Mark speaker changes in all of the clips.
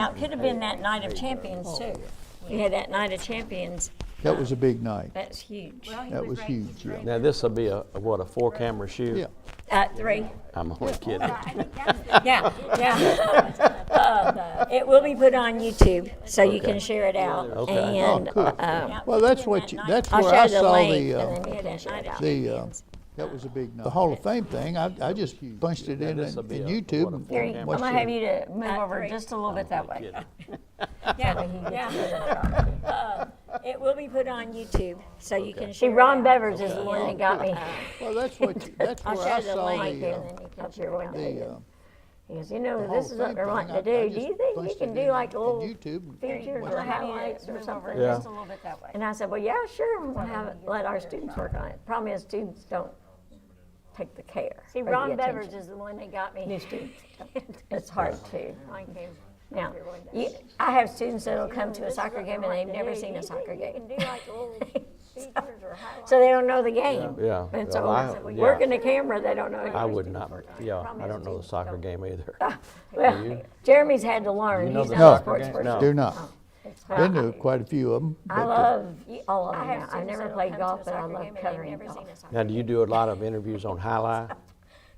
Speaker 1: Well, it could have been that night of champions too. We had that night of champions.
Speaker 2: That was a big night.
Speaker 1: That's huge.
Speaker 2: That was huge, yeah.
Speaker 3: Now, this'll be a, a what, a four-camera shoot?
Speaker 2: Yeah.
Speaker 1: Uh, three.
Speaker 3: I'm only kidding.
Speaker 1: Yeah, yeah. Uh, It will be put on YouTube, so you can share it out.
Speaker 3: Okay.
Speaker 2: Oh,
Speaker 1: And
Speaker 2: cool.
Speaker 1: uh,
Speaker 2: Well, that's what, you- that's
Speaker 1: I'll
Speaker 2: where I
Speaker 1: show the
Speaker 2: saw
Speaker 1: link
Speaker 2: the,
Speaker 1: and then
Speaker 2: uh,
Speaker 1: you can share it out.
Speaker 2: the, uh, that was a big night. The Hall of Fame thing, I, I just punched it in in
Speaker 3: this'll be
Speaker 2: in
Speaker 3: a-
Speaker 2: YouTube.
Speaker 3: what a
Speaker 2: and
Speaker 3: four-camera
Speaker 1: Three. I'm
Speaker 2: watched
Speaker 1: gonna
Speaker 2: it.
Speaker 1: have you to move over just a little bit that way. Yeah, yeah. Uh, It will be put on YouTube, so you can share. See, Ron Bevers is the one that got me.
Speaker 2: Well, that's what, you- that's where
Speaker 1: I'll
Speaker 2: I
Speaker 1: show the
Speaker 2: saw
Speaker 1: link and
Speaker 2: the,
Speaker 1: then
Speaker 2: uh,
Speaker 1: you can share what they
Speaker 2: the,
Speaker 1: did.
Speaker 2: uh,
Speaker 1: Because, you know,
Speaker 2: Hall
Speaker 1: this
Speaker 2: of
Speaker 1: is what
Speaker 2: Fame
Speaker 1: they're
Speaker 2: thing.
Speaker 1: wanting to
Speaker 2: I- I
Speaker 1: do. Do
Speaker 2: just
Speaker 1: you think we
Speaker 2: punched
Speaker 1: can
Speaker 2: it
Speaker 1: do
Speaker 2: in-
Speaker 1: like oh,
Speaker 2: in
Speaker 1: little
Speaker 2: YouTube and
Speaker 1: features
Speaker 2: watched
Speaker 1: or
Speaker 2: it.
Speaker 1: highlights or something?
Speaker 3: Yeah.
Speaker 1: Just a little bit that way. And I said, well, yeah, sure, we'll have, it- let our students work on it. Problem is, students don't take the care. See, Ron Bevers is the one that got me. New students. It's hard too. Now, you, I have students that'll come to a soccer game and they've never seen a soccer game. So they don't know the game.
Speaker 3: Yeah,
Speaker 1: And
Speaker 3: well, I-
Speaker 1: so,
Speaker 3: yeah.
Speaker 1: working the camera, they don't know.
Speaker 3: I would not, yeah, I don't know the soccer game either.
Speaker 1: Well, Jeremy's had to learn.
Speaker 3: know
Speaker 1: He's
Speaker 3: the
Speaker 1: not a
Speaker 2: soccer
Speaker 1: sports
Speaker 3: game?
Speaker 1: person.
Speaker 3: No.
Speaker 2: do
Speaker 1: Oh.
Speaker 2: not. Been to quite a few of uh, them.
Speaker 1: I love all of them. now. I've never played golf, but I love covering golf.
Speaker 3: Now, do you do a lot of interviews on Highline?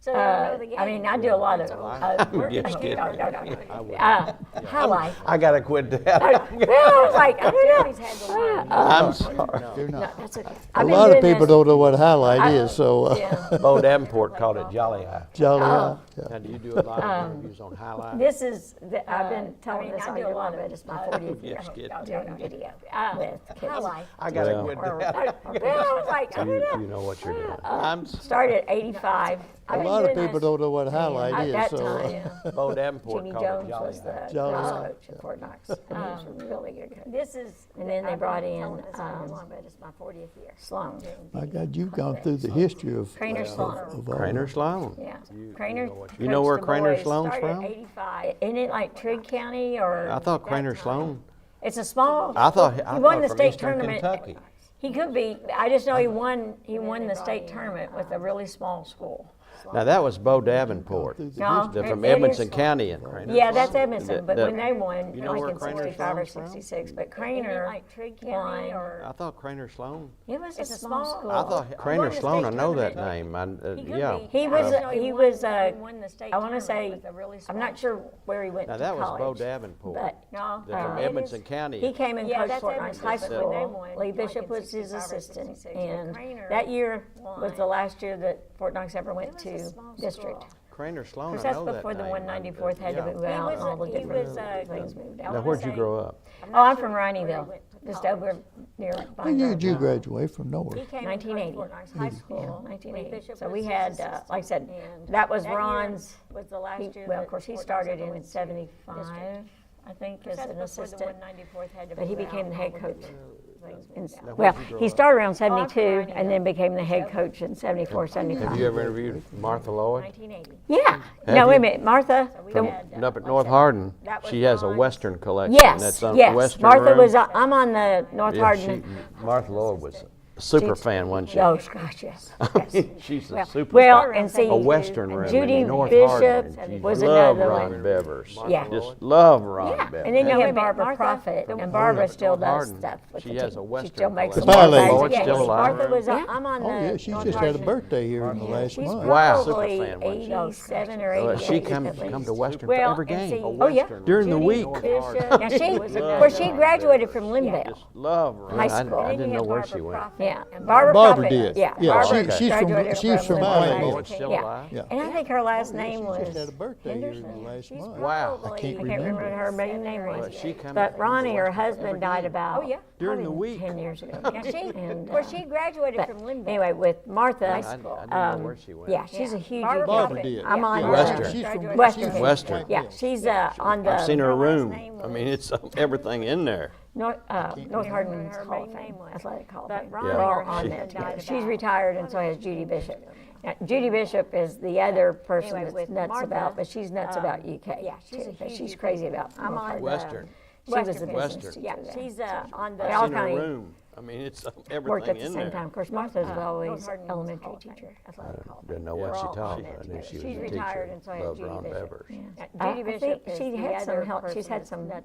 Speaker 1: So I mean, I do a lot of. uh, work-
Speaker 3: just kidding.
Speaker 1: No, no, no. Uh,
Speaker 4: Um,
Speaker 1: Highlight.
Speaker 3: I gotta quit that.
Speaker 1: Well, I was like, I don't know. Uh,
Speaker 3: I'm sorry.
Speaker 2: Do not.
Speaker 1: That's okay.
Speaker 2: A lot of people don't know what highlight is, so, uh,
Speaker 3: Bo Davenport called it Jolly Eye.
Speaker 2: jolly,
Speaker 1: Oh.
Speaker 2: eye, yeah.
Speaker 3: Now, do you do a lot of interviews on Highline?
Speaker 1: Um, This is, the-
Speaker 3: Uh,
Speaker 1: I've been telling this all year long, but it's my 40th year.
Speaker 3: Just kidding.
Speaker 1: Doing video uh, with kids.
Speaker 3: I gotta quit
Speaker 1: Or-
Speaker 3: that.
Speaker 1: Well, I was like, I don't
Speaker 3: You
Speaker 1: know. Um,
Speaker 3: you know what you're doing. I'm
Speaker 1: Started at 85.
Speaker 2: A lot of people don't know what highlight is, so. uh,
Speaker 3: Bo Davenport
Speaker 1: Jimmy
Speaker 3: called it
Speaker 1: Jones
Speaker 3: Jolly
Speaker 1: was
Speaker 3: Eye.
Speaker 1: the
Speaker 2: Jolly
Speaker 1: golf
Speaker 2: Eye.
Speaker 1: coach at Fort Knox.
Speaker 3: Um,
Speaker 1: And he was a really good coach. This is. And then they brought in, um. it's my 40th year. Sloan.
Speaker 2: My God, you've gone through the history of.
Speaker 1: Craner Sloan.
Speaker 2: of all
Speaker 3: Crainer Sloan.
Speaker 1: Yeah. Craner.
Speaker 3: You know where Craner Sloan's from?
Speaker 1: Started at 85. Isn't it like Trigg County or?
Speaker 3: I thought Crainer Sloan,
Speaker 1: It's a small.
Speaker 3: I thought- I
Speaker 1: He won
Speaker 3: thought
Speaker 1: the
Speaker 3: from
Speaker 1: state
Speaker 3: Eastern
Speaker 1: tournament.
Speaker 3: Kentucky.
Speaker 1: He could be, I just know he won, he won the state tournament with a really small school.
Speaker 3: now that was Bo Davenport.
Speaker 1: No,
Speaker 3: They're from
Speaker 1: it- it is-
Speaker 3: Edmonson County in Crainer.
Speaker 1: Yeah, that's Edmondson,
Speaker 3: That-
Speaker 1: but
Speaker 3: that-
Speaker 1: when they won,
Speaker 3: know
Speaker 1: like
Speaker 3: where
Speaker 1: in
Speaker 3: Craner
Speaker 1: sixty-five or
Speaker 3: Sloan's from?
Speaker 1: sixty-six, but Craner won.
Speaker 3: I thought Crainer Sloan.
Speaker 1: It was a small school.
Speaker 3: I thought Crainer Sloan, I know that name, I, uh, yeah.
Speaker 1: He was, he was, uh, I wanna say, I'm not sure where he went to
Speaker 3: Now,
Speaker 1: college.
Speaker 3: that was Bo Davenport.
Speaker 1: But,
Speaker 4: No.
Speaker 3: They're from
Speaker 1: uh,
Speaker 3: Edmonson
Speaker 1: He
Speaker 3: County.
Speaker 1: came and coached
Speaker 4: that's
Speaker 1: Fort Knox High
Speaker 4: Edmondson, but when they
Speaker 1: School.
Speaker 4: won,
Speaker 1: Lee
Speaker 4: like in
Speaker 1: Bishop was his
Speaker 4: 65 or
Speaker 1: assistant,
Speaker 4: 66, but
Speaker 1: and
Speaker 4: Crainer
Speaker 1: that year was the
Speaker 4: won.
Speaker 1: last year that Fort Knox ever went
Speaker 4: was a
Speaker 1: to
Speaker 4: small
Speaker 1: district.
Speaker 4: school.
Speaker 3: Crainer Sloan,
Speaker 1: Because
Speaker 3: I
Speaker 1: that's
Speaker 3: know that name.
Speaker 1: before the
Speaker 3: I-
Speaker 1: one ninety-fourth had to
Speaker 3: yeah.
Speaker 1: move out and all the
Speaker 4: was a- Uh, he
Speaker 1: different
Speaker 4: was a-
Speaker 1: things moved out.
Speaker 3: Now, where'd you grow up?
Speaker 1: Oh, I'm from Riney just over near.
Speaker 2: When did you graduate from nowhere?
Speaker 1: Nineteen eighty.
Speaker 4: High
Speaker 1: Yeah,
Speaker 4: School.
Speaker 1: nineteen
Speaker 4: Lee
Speaker 1: eighty.
Speaker 4: Bishop
Speaker 1: So
Speaker 4: was
Speaker 1: we
Speaker 4: his
Speaker 1: had, uh,
Speaker 4: assistant,
Speaker 1: like I said,
Speaker 4: and
Speaker 1: that was
Speaker 4: that year
Speaker 1: Ron's.
Speaker 4: was the last
Speaker 1: he-
Speaker 4: year
Speaker 1: Well,
Speaker 4: that
Speaker 1: of course, he
Speaker 4: Fort Knox
Speaker 1: started
Speaker 4: ever
Speaker 1: in
Speaker 4: went to
Speaker 1: seventy-five, I think, as an assistant.
Speaker 4: but
Speaker 1: But he became the head coach. in-
Speaker 3: Now,
Speaker 1: Well,
Speaker 3: where'd you grow
Speaker 1: he
Speaker 3: up?
Speaker 1: started around seventy-two and then became the head coach in seventy-four,
Speaker 3: Have
Speaker 1: seventy-five.
Speaker 3: you ever interviewed Martha Lloyd?
Speaker 1: Yeah. No, wait a
Speaker 3: you?
Speaker 1: minute, Martha.
Speaker 3: From
Speaker 1: the-
Speaker 3: up at North Hardin,
Speaker 4: that was
Speaker 3: she has a
Speaker 4: Ron's-
Speaker 3: Western collection.
Speaker 1: Yes,
Speaker 3: That's on
Speaker 1: yes.
Speaker 3: Western
Speaker 1: Martha
Speaker 3: Room.
Speaker 1: was, on- I'm on the North
Speaker 3: Yeah, she-
Speaker 1: Hardin.
Speaker 3: Martha Lloyd was a super fan, wasn't she?
Speaker 1: Oh, gosh, yes. yes.
Speaker 3: She's a super
Speaker 1: Well,
Speaker 3: fan.
Speaker 1: and see.
Speaker 3: A Western room in
Speaker 1: Judy
Speaker 3: North
Speaker 1: Bishop
Speaker 3: Hardin, and she
Speaker 1: was
Speaker 3: loved
Speaker 1: another
Speaker 3: Ron
Speaker 1: one.
Speaker 3: Bevers.
Speaker 1: Yeah.
Speaker 3: Just love Ron
Speaker 1: Yeah,
Speaker 3: Bevers.
Speaker 1: and then you
Speaker 4: wait a
Speaker 1: have
Speaker 4: minute,
Speaker 1: Barbara
Speaker 4: Martha,
Speaker 1: Prophet, and Barbara still does
Speaker 3: Hardin,
Speaker 1: stuff with the
Speaker 3: she
Speaker 1: team.
Speaker 3: has a Western
Speaker 1: She still makes.
Speaker 3: collection.
Speaker 1: some
Speaker 2: Smiley.
Speaker 1: bags.
Speaker 2: Oh,
Speaker 3: it's
Speaker 1: Yes,
Speaker 3: still alive.
Speaker 1: Martha was, on- I'm on the.
Speaker 2: Oh, yeah, she
Speaker 1: North
Speaker 2: just had a
Speaker 1: Hardin.
Speaker 2: birthday here in the last
Speaker 1: She's
Speaker 2: month.
Speaker 3: Wow.
Speaker 1: probably
Speaker 3: Superfan, wasn't she?
Speaker 1: eighty-seven or
Speaker 3: Uh,
Speaker 1: eighty-eight.
Speaker 3: She comes,
Speaker 1: at
Speaker 3: come
Speaker 1: least.
Speaker 3: to Western for
Speaker 1: Well,
Speaker 3: every
Speaker 1: and see-
Speaker 3: game.
Speaker 1: Oh, yeah.
Speaker 3: During the
Speaker 1: Judy
Speaker 3: week.
Speaker 1: Bishop. Now, she, of course, she graduated from Linville.
Speaker 3: Just love Ron.
Speaker 1: High
Speaker 3: I-
Speaker 1: school.
Speaker 3: I didn't know where she went.
Speaker 1: Yeah, Barbara
Speaker 2: Barbara
Speaker 1: Prophet.
Speaker 2: did.
Speaker 1: Yeah.
Speaker 2: Yeah,
Speaker 1: Barbara
Speaker 2: she- she's from-
Speaker 1: graduated
Speaker 2: she's from
Speaker 1: Linville.
Speaker 2: Alabama.
Speaker 3: Oh, it's still
Speaker 1: Yeah,
Speaker 3: alive?
Speaker 2: Yeah.
Speaker 1: and I think her last name
Speaker 2: She just had a
Speaker 1: was,
Speaker 2: birthday here in the last month.
Speaker 3: Wow.
Speaker 2: I can't
Speaker 1: I can't remember what
Speaker 2: remember.
Speaker 1: her maiden name
Speaker 3: But she
Speaker 1: was.
Speaker 3: comes.
Speaker 1: But Ronnie, her husband, died about.
Speaker 4: Oh, yeah.
Speaker 3: During the
Speaker 1: probably
Speaker 3: week.
Speaker 1: Ten years ago. And, uh,
Speaker 4: Where she graduated
Speaker 1: but
Speaker 4: from Linville.
Speaker 1: Anyway, with Martha,
Speaker 3: I I didn't know
Speaker 1: um,
Speaker 3: where she went.
Speaker 1: yeah, she's a huge.
Speaker 4: Barbara
Speaker 1: example.
Speaker 2: Barbara did.
Speaker 1: I'm on.
Speaker 2: Yeah,
Speaker 1: uh,
Speaker 3: Western.
Speaker 2: She's from.
Speaker 1: Western.
Speaker 2: she's from
Speaker 3: Western.
Speaker 1: Yeah,
Speaker 2: Whiteville.
Speaker 1: she's uh, on
Speaker 3: I've seen
Speaker 1: the
Speaker 3: her room.
Speaker 4: name
Speaker 3: I mean, it's everything in there.
Speaker 1: North, uh, North Hardin's
Speaker 4: her
Speaker 1: Hall of
Speaker 4: maiden
Speaker 1: Fame,
Speaker 4: name was.
Speaker 1: Athletic Hall of
Speaker 4: But
Speaker 1: Fame.
Speaker 4: Ronnie,
Speaker 1: We're all
Speaker 4: her
Speaker 1: on
Speaker 4: husband
Speaker 1: there together.
Speaker 4: died
Speaker 1: She's
Speaker 4: about-
Speaker 1: retired and so has Judy Bishop. Now, Judy Bishop is the other person that's
Speaker 4: with
Speaker 1: nuts
Speaker 4: Martha, um,
Speaker 1: about, but she's nuts about UK. Yeah,
Speaker 4: she's a huge
Speaker 1: She's crazy about North
Speaker 4: on
Speaker 1: Hardin.
Speaker 4: the-
Speaker 3: Western.
Speaker 1: She was the business
Speaker 3: Western.
Speaker 1: teacher
Speaker 4: Yeah,
Speaker 1: there.
Speaker 4: she's uh, on the.
Speaker 1: They all
Speaker 3: In her
Speaker 1: kind of
Speaker 3: room. I mean, it's
Speaker 1: worked
Speaker 3: everything
Speaker 1: at the
Speaker 3: in
Speaker 1: same time.
Speaker 3: there.
Speaker 1: Of course, Martha's always
Speaker 4: Hardin was
Speaker 1: elementary
Speaker 4: called that.
Speaker 1: teacher. athletic Hall of Fame.
Speaker 3: Didn't know
Speaker 1: We're
Speaker 3: what she
Speaker 1: all
Speaker 3: taught.
Speaker 1: on
Speaker 3: I
Speaker 1: it
Speaker 3: knew
Speaker 1: together.
Speaker 3: she was a
Speaker 4: She's
Speaker 3: teacher.
Speaker 4: retired, and so has
Speaker 3: Loved
Speaker 4: Judy
Speaker 3: Ron
Speaker 4: Bishop.
Speaker 3: Bevers.
Speaker 1: Yeah.
Speaker 4: Uh,
Speaker 1: I-
Speaker 4: Judy
Speaker 1: I
Speaker 4: Bishop
Speaker 1: think
Speaker 4: is
Speaker 1: she
Speaker 4: the
Speaker 1: had some
Speaker 4: other
Speaker 1: help. She's
Speaker 4: person
Speaker 1: had
Speaker 4: that's
Speaker 1: some
Speaker 4: nuts